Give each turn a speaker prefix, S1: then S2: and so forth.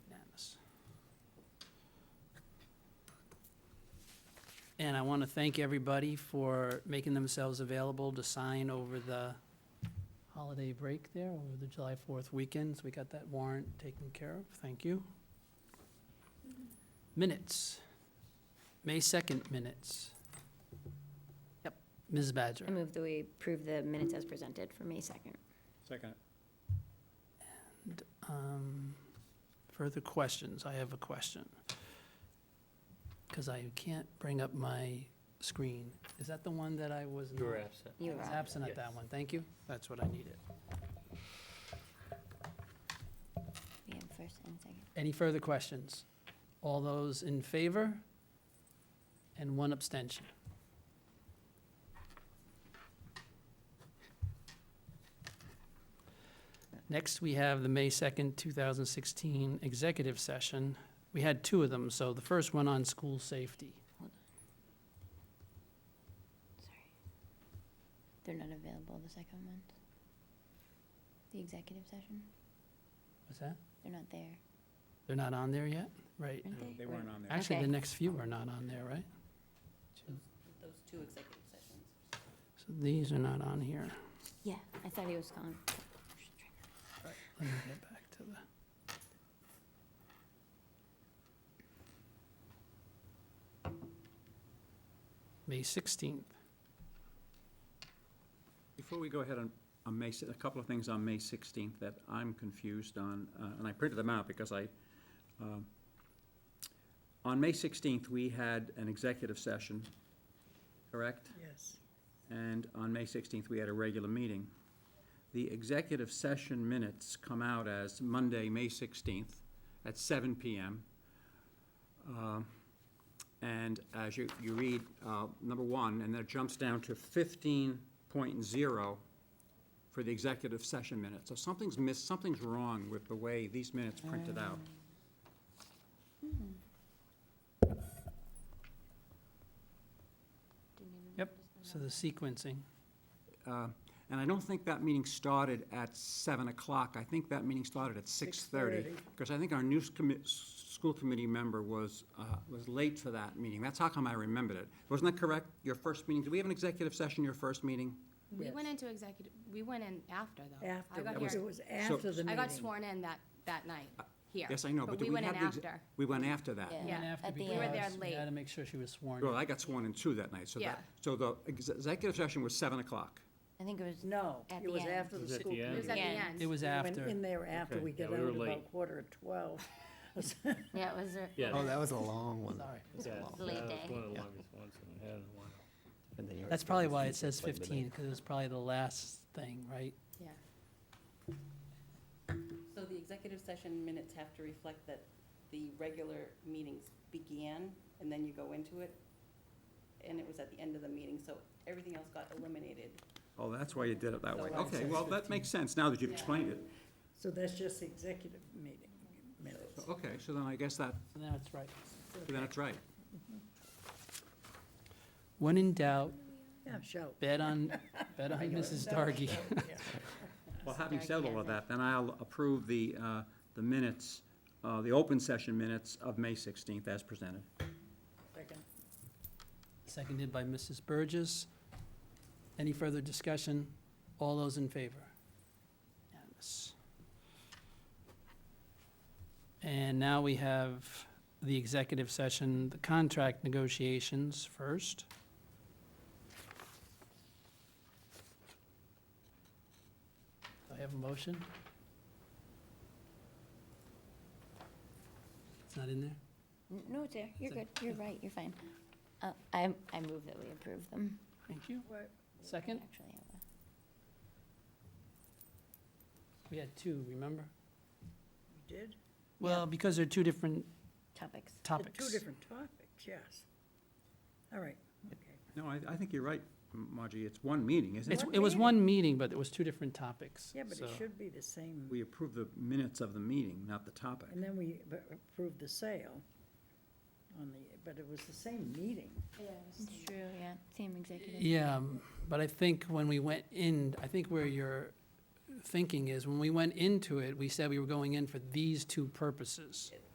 S1: And I want to thank everybody for making themselves available to sign over the holiday break there, over the July 4th weekend. So we got that warrant taken care of. Thank you. Minutes. May 2nd minutes. Yep, Ms. Badger.
S2: I move that we approve the minutes as presented for May 2nd.
S3: Second.
S1: Um, Further questions? I have a question. Because I can't bring up my screen. Is that the one that I was? not-
S3: absent.
S1: I
S2: You
S1: was
S2: are.
S1: absent at that
S3: Yes.
S1: one. Thank you. That's what I needed.
S2: We have first and second.
S1: Any further questions? All those in favor? And one abstention. Next, we have the May 2nd, 2016 executive session. We had two of them, so the first one on school safety.
S2: Sorry. They're not available, the second ones? The executive session?
S1: What's that?
S2: They're not there,
S1: They're not on there yet? Right.
S2: aren't Uh, they?
S3: They weren't on there.
S1: Actually, the
S2: Okay.
S1: next few are not on there, right?
S4: those two executive sessions.
S1: So these are not on here.
S2: Yeah, I thought he was gone.
S1: Let me get back to the. May 16th.
S3: Before we go ahead on, on May, si- a couple of things on May 16th that I'm confused on, uh, and I printed them out because I, um, on May 16th, we had an executive session, correct?
S4: Yes.
S3: And on May 16th, we had a regular meeting. The executive session minutes come out as Monday, May 16th, at 7 PM. Um, And as you, you read, uh, number one, and then it jumps down to 15.0 for the executive session minutes. So something's missed, something's wrong with the way these minutes printed out.
S2: Didn't even
S1: Yep,
S2: notice
S1: So
S2: them.
S1: the sequencing.
S3: Uh, And I don't think that meeting started at 7 o'clock. I think that meeting started at 6:30. Because I think our new s- commi- s- school committee member was, uh, was late for that meeting. That's how come I remembered it. Wasn't that correct? Your first meeting, did we have an executive session your first meeting?
S5: We
S4: Yes.
S5: went into executive, we went in after though. I got
S4: Afterwards, it
S5: here,
S4: was after the
S5: I
S4: meeting.
S5: got sworn in that, that night,
S1: Uh,
S5: here.
S3: Yes, I know, but
S5: But
S3: did
S5: we
S3: we
S5: went
S3: have
S5: in
S3: the... exe-
S5: after.
S3: We went after that.
S2: Yeah.
S1: And
S5: Yeah,
S1: after
S2: at the
S1: because
S2: end. We were
S5: there
S1: We
S5: late.
S1: had to make sure she was sworn.
S3: Well,
S1: in.
S3: I got sworn in too that night, so
S5: Yeah.
S3: that, so the ex- executive session was 7 o'clock.
S2: I think it was,
S4: No,
S2: At
S4: it
S2: the
S4: was
S2: end.
S4: after the school.
S5: It was at the
S2: Yeah.
S5: end.
S1: It was
S4: Went
S1: after.
S4: in there after
S6: Okay,
S4: we get
S6: yeah, we
S4: out
S6: were
S4: at about
S6: late.
S4: quarter of twelve.
S2: yeah, it was a-
S6: Yeah.
S7: Oh, that was a long one.
S1: Sorry.
S6: Yeah,
S2: It's
S6: that
S2: late
S6: was
S2: day.
S6: One of the longest ones that I had in a while.
S1: That's probably why it says 15, because it was probably the last thing, right?
S5: Yeah.
S4: So the executive session minutes have to reflect that the regular meetings began and then you go into it. And it was at the end of the meeting, so everything else got eliminated.
S3: Oh, that's why you did it that way.
S4: So it
S3: Okay, well, that makes sense now that you've
S4: Yeah.
S3: explained it.
S8: So that's just the executive meeting minutes.
S3: Okay, so then I guess that,
S1: So That's right.
S3: then it's right.
S1: When in doubt,
S4: Yeah, show.
S1: bet on, bet on Mrs. Dargy.
S3: Well, having said all
S2: Sarcasm.
S3: of that, then I'll approve the, uh, the minutes, uh, the open session minutes of May 16th as presented.
S8: Second.
S1: Seconded by Mrs. Burgess. Any further discussion? All those in favor? Unanimous. And now we have the executive session, the contract negotiations first. Do I have a motion? It's not in there?
S2: N- no, it's there, you're
S1: Sec-
S2: good, you're right, you're fine. Uh, I, I move that we approve them.
S1: Thank you.
S8: What?
S1: Second?
S2: Actually, I have a-
S1: We had two, remember?
S8: We did?
S1: Well, because they're two different
S2: topics.
S8: The
S1: topics.
S8: Two different topics, yes. All right, okay.
S3: No, I, I think you're right, Margie, it's one meeting, isn't
S1: It's,
S3: it?
S8: One
S1: it was
S8: meeting.
S1: one meeting, but it was two different topics.
S8: Yeah, but it
S1: so-
S8: should be the same,
S3: We approve the minutes of the meeting, not the topic.
S8: and then we b- approved the sale on the, but it was the same meeting.
S2: It's true, yeah, same executive.
S1: Yeah, um, but I think when we went in, I think where your thinking is, when we went into it, we said we were going in for these two purposes.